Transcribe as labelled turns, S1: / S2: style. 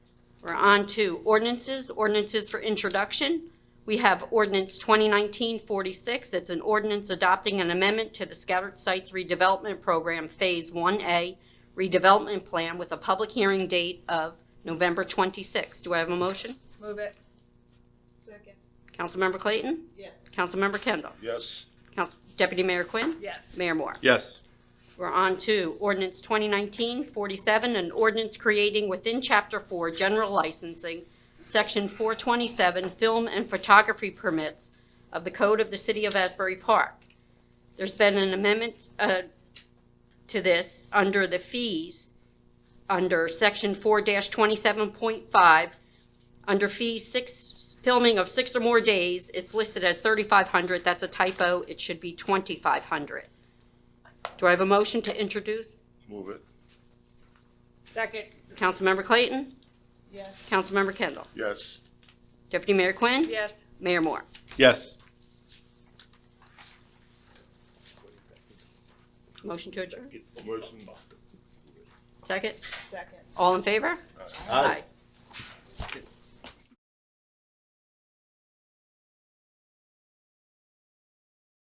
S1: We're on to ordinances, ordinances for introduction. We have ordinance 2019-46. It's an ordinance adopting an amendment to the Scattered Sites Redevelopment Program Phase 1A redevelopment plan with a public hearing date of November 26. Do I have a motion?
S2: Move it.
S3: Second.
S1: Councilmember Clayton?
S3: Yes.
S1: Councilmember Kendall?
S4: yes,
S1: Council- Deputy Mayor Quinn?
S2: Yes.
S1: Mayor Moore?
S5: yes,
S1: We're on to ordinance 2019-47, an ordinance creating within Chapter 4 General Licensing, Section 427, Film and Photography Permits of the Code of the City of Asbury Park. There's been an amendment uh, to this under the fees, under Section 4-27.5, under fees, six, filming of six or more days, it's listed as 3,500. That's a typo. It should be 2,500. Do I have a motion to introduce?
S4: move it,
S2: Second.
S1: Councilmember Clayton?
S3: Yes.
S1: Councilmember Kendall?
S4: yes,
S1: Deputy Mayor Quinn?
S2: Yes.
S1: Mayor Moore?
S5: yes,
S1: Motion to adjourn?
S4: motion,
S1: Second?
S3: Second.
S1: All in favor?
S5: Aye.